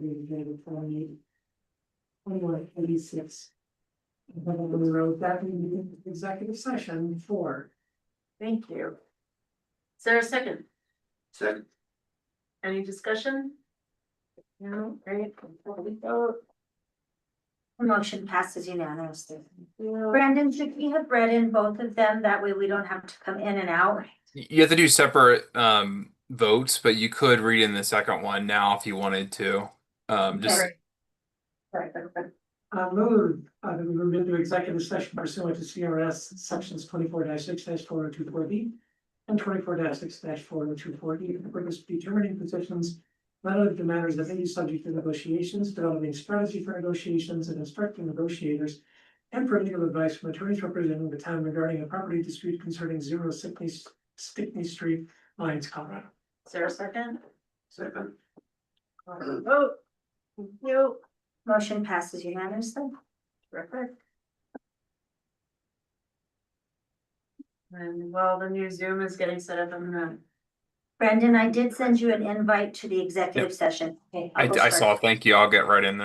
we did in twenty. Twenty-one, eighty-six. But when we wrote that in the executive session before. Thank you. Is there a second? Second, Any discussion? No, great. Vote. Motion passes unanimously. No. Brandon, should we have read in both of them? That way we don't have to come in and out. Y- You have to do separate um votes, but you could read in the second one now if you wanted to. Um, just Uh, move, uh, that we move into executive session pursuant to CRS sections twenty-four six four oh two four B. And twenty-four six four oh two four D, in accordance with determining positions. None of the matters that may be subject to negotiations, developing strategy for negotiations and instructing negotiators. And for legal advice from attorneys representing the town regarding a property dispute concerning zero Stickney, Stickney Street, Lyons, Colorado. Is there a second? second. Vote. Thank you. Motion passes unanimously. Terrific. And while the new Zoom is getting set up, I'm gonna, Brandon, I did send you an invite to the executive session. Okay, I'll I go I first. saw. Thank you. I'll get right in there.